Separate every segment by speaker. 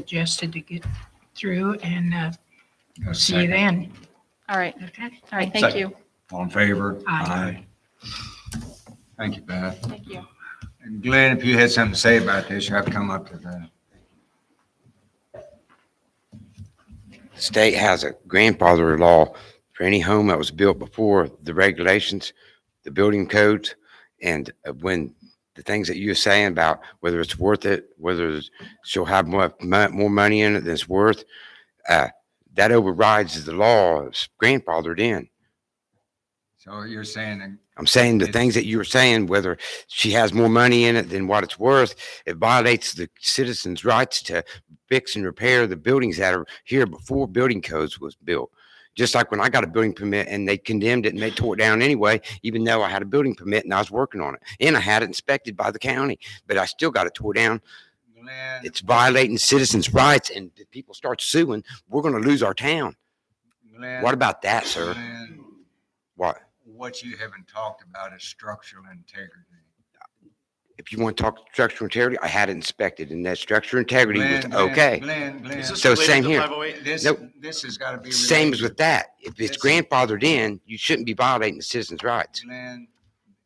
Speaker 1: suggested to get through and uh,
Speaker 2: Got a
Speaker 1: see you
Speaker 2: second?
Speaker 1: then.
Speaker 3: All right,
Speaker 1: Okay.
Speaker 3: all right, thank
Speaker 2: Second.
Speaker 3: you,
Speaker 2: All in favor?
Speaker 1: Aye.
Speaker 2: Aye. Thank you, Beth.
Speaker 3: thank you.
Speaker 2: And Glenn, if you had something to say about this, you have to come up to the,
Speaker 4: The state has a grandfather law for any home that was built before the regulations, the building codes, and uh, when the things that you're saying about whether it's worth it, whether it's- she'll have more, mo- more money in it than it's worth, uh, that overrides the law, it's grandfathered in.
Speaker 2: so you're saying, that-
Speaker 4: I'm saying the
Speaker 2: It-
Speaker 4: things that you were saying, whether she has more money in it than what it's worth, it violates the citizens' rights to fix and repair the buildings that are here before building codes was built. Just like when I got a building permit and they condemned it and they tore it down anyway, even though I had a building permit and I was working on it. And I had it inspected by the county, but I still got it tore down.
Speaker 2: Glenn,
Speaker 4: It's violating citizens' rights and if people start suing, we're gonna lose our town.
Speaker 2: Glenn.
Speaker 4: What about that, sir?
Speaker 2: Glenn,
Speaker 4: What?
Speaker 2: What you haven't talked about is structural integrity.
Speaker 4: If you want to talk structural integrity, I had it inspected and that structural integrity was
Speaker 2: Glenn, Glenn,
Speaker 4: okay.
Speaker 2: Glenn, Glenn,
Speaker 5: Is this
Speaker 4: So
Speaker 5: related
Speaker 4: same
Speaker 5: to
Speaker 4: here.
Speaker 5: 508?
Speaker 2: this,
Speaker 4: Nope.
Speaker 2: this has got to be.
Speaker 4: Same as
Speaker 2: related.
Speaker 4: with that. If it's
Speaker 2: That's-
Speaker 4: grandfathered in, you shouldn't be violating the citizens' rights.
Speaker 2: Glenn,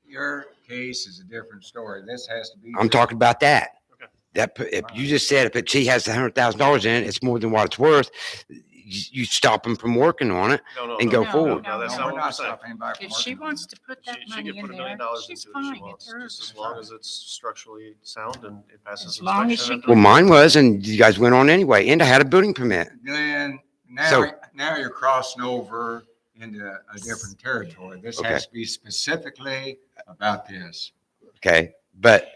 Speaker 2: your case is a different story. This has to be.
Speaker 4: I'm talking about that.
Speaker 5: Okay.
Speaker 4: That, pu- if you just said if it, she has a hundred thousand dollars in it, it's more than what it's worth, you, you stop them from working on it.
Speaker 5: No, no,
Speaker 4: and
Speaker 5: no,
Speaker 4: go
Speaker 5: no,
Speaker 4: forward.
Speaker 5: No, that's
Speaker 2: No, we're
Speaker 5: not what I'm
Speaker 2: not
Speaker 5: saying.
Speaker 2: stopping anybody from
Speaker 1: If she
Speaker 2: working.
Speaker 1: wants to put that
Speaker 5: She, she
Speaker 1: money
Speaker 5: can
Speaker 1: in
Speaker 5: put a million
Speaker 1: there,
Speaker 5: dollars
Speaker 1: she's
Speaker 5: into it
Speaker 1: fine.
Speaker 5: if she
Speaker 1: It's
Speaker 5: wants, just
Speaker 1: hers.
Speaker 5: as long as it's structurally sound and it passes
Speaker 1: As long as
Speaker 5: inspection.
Speaker 1: she
Speaker 5: at the-
Speaker 4: Well, mine was, and you guys went on anyway, and I had a building permit.
Speaker 2: Glenn, now,
Speaker 4: So-
Speaker 2: now you're crossing over into a different territory. This
Speaker 4: Okay.
Speaker 2: has to be specifically about this.
Speaker 4: Okay, but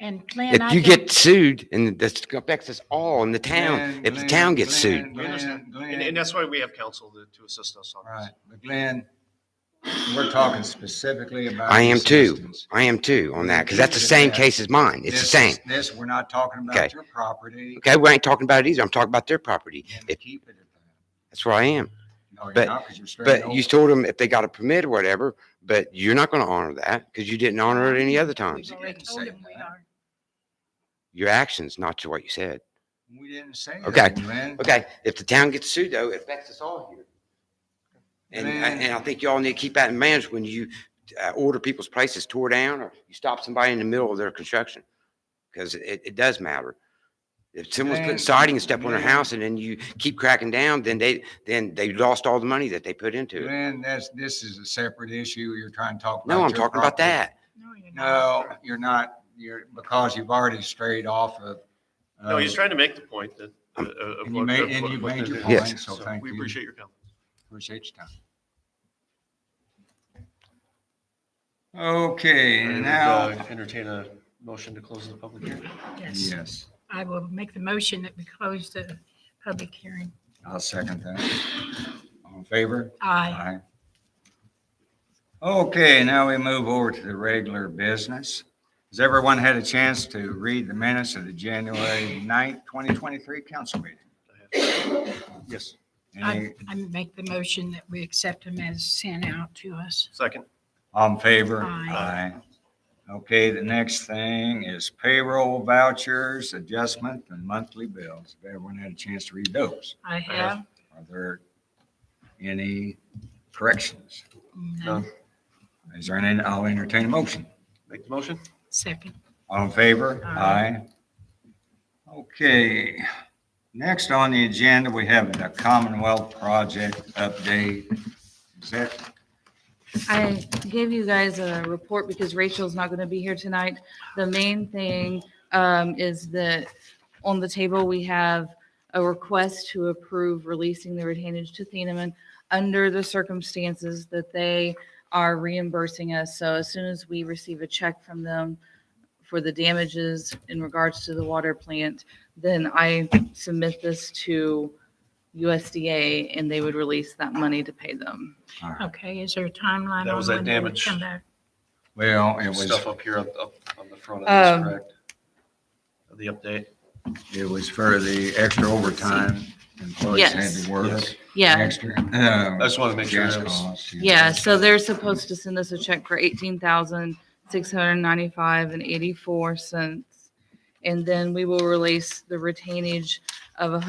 Speaker 1: And Glenn, I
Speaker 4: if you
Speaker 1: don't,
Speaker 4: get sued, and this affects us all in the town,
Speaker 2: Glenn,
Speaker 4: if the
Speaker 2: Glenn,
Speaker 4: town gets
Speaker 2: Glenn,
Speaker 4: sued,
Speaker 5: We
Speaker 2: Glenn,
Speaker 5: understand. And, and
Speaker 2: Glenn,
Speaker 5: that's why we have counsel to, to assist us on this.
Speaker 2: right, but Glenn, we're talking specifically about.
Speaker 4: I am too.
Speaker 2: assistance.
Speaker 4: I am too on that, because that's the
Speaker 2: This is
Speaker 4: same
Speaker 2: that.
Speaker 4: case as mine. It's the
Speaker 2: This
Speaker 4: same.
Speaker 2: is- This, we're not talking
Speaker 4: Okay.
Speaker 2: about your property.
Speaker 4: Okay, we ain't talking about it either. I'm talking about their property.
Speaker 2: and
Speaker 4: If,
Speaker 2: Keep it at that.
Speaker 4: that's where I am.
Speaker 2: No, you're
Speaker 4: But-
Speaker 2: not, 'cause you're starting
Speaker 4: But you
Speaker 2: over.
Speaker 4: told them if they got a permit or whatever, but you're not going to honor that because you didn't honor it any other times.
Speaker 1: we've already
Speaker 2: You
Speaker 1: told
Speaker 2: didn't
Speaker 1: him
Speaker 2: say
Speaker 1: we
Speaker 2: that.
Speaker 1: are.
Speaker 4: Your actions, not to what you said.
Speaker 2: We didn't say
Speaker 4: Okay,
Speaker 2: that, Glenn.
Speaker 4: Okay, if the town gets sued though, it affects us all here. And, I-
Speaker 2: Man.
Speaker 4: and I think y'all need to keep that in mind when you uh, order people's places tore down or you stop somebody in the middle of their construction. Because it, it does matter. If someone's
Speaker 2: Man.
Speaker 4: putting siding and stuff on their
Speaker 2: Man.
Speaker 4: house and then you keep cracking down, then they, then they lost all the money that they put into it.
Speaker 2: Glenn, that's, this is a separate issue. You're trying to talk about.
Speaker 4: No, I'm
Speaker 2: your
Speaker 4: talking about
Speaker 2: property.
Speaker 4: that.
Speaker 1: No, you're not.
Speaker 2: No, you're not, you're, because you've already strayed off of. uh,
Speaker 5: No, he's
Speaker 2: of-
Speaker 5: trying to make the point that. uh, of
Speaker 2: And you
Speaker 5: what-
Speaker 2: made-
Speaker 5: of
Speaker 2: and
Speaker 5: what-
Speaker 2: you
Speaker 5: what
Speaker 2: made
Speaker 5: they're
Speaker 2: your
Speaker 5: doing.
Speaker 4: point,
Speaker 2: so
Speaker 5: So
Speaker 2: thank
Speaker 5: We
Speaker 2: you.
Speaker 5: appreciate your counsel.
Speaker 2: Appreciate your time. Okay,
Speaker 5: And,
Speaker 2: and
Speaker 5: uh,
Speaker 2: now,
Speaker 5: Entertain a motion to close the public hearing.
Speaker 1: Yes,
Speaker 2: yes,
Speaker 1: I will make the motion that we close the public hearing.
Speaker 2: I'll second that. All in favor?
Speaker 1: Aye.
Speaker 2: Aye. Okay, now we move over to the regular business. Has everyone had a chance to read the minutes of the January 9th, 2023 council meeting?
Speaker 5: Yes,
Speaker 2: Any,
Speaker 1: I, I make the motion that we accept them as sent out to us.
Speaker 5: second.
Speaker 2: all in favor?
Speaker 1: Aye.
Speaker 2: Aye. Okay, the next thing is payroll vouchers, adjustment, and monthly bills. If everyone had a chance to read those,
Speaker 1: I have.
Speaker 2: are there any corrections?
Speaker 1: No.
Speaker 2: Is there any, I'll entertain a motion.
Speaker 5: Make the motion?
Speaker 1: Second.
Speaker 2: All in favor?
Speaker 1: Aye.
Speaker 2: Okay, next on the agenda, we have the Commonwealth Project update. Is that,
Speaker 6: I gave you guys a report because Rachel's not going to be here tonight. The main thing um, is that on the table, we have a request to approve releasing the retainage to Thieneman under the circumstances that they are reimbursing us. So as soon as we receive a check from them for the damages in regards to the water plant, then I submit this to USDA and they would release that money to pay them.
Speaker 1: Okay, is there a timeline?
Speaker 5: That was
Speaker 1: on when
Speaker 5: that
Speaker 1: they would
Speaker 5: damage.
Speaker 1: Come back.
Speaker 2: well, it was,
Speaker 5: Stuff up here up, up on the front of
Speaker 6: Um,
Speaker 5: this, correct? The update.
Speaker 2: it was for the extra overtime employees had
Speaker 6: Yes.
Speaker 2: to work.
Speaker 5: Yes.
Speaker 6: Yeah.
Speaker 2: Extra. Um,
Speaker 5: I just wanted to make sure that was.
Speaker 6: Yeah, so they're supposed to send us a check for eighteen thousand, six hundred and ninety-five and eighty-four cents. And then we will release the retainage of a